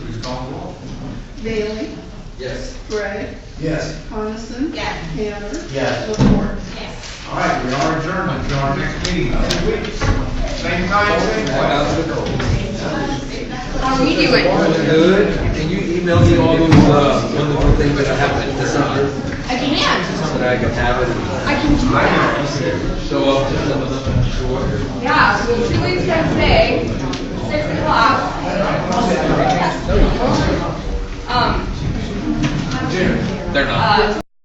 Bailey, Yes. Gray, Yes. Coniston. Yes. Tanner. Yes. Lepore. Yes. All right, we are adjourned until our next meeting, next week. Same time, same place. How are you doing? Good, can you email me all those, uh, wonderful things that I have in December, I can. so that I can have it, I can do that. and show up to some of them, sure. Yeah, so Julie's gonna say, six o'clock. Um, They're not. uh,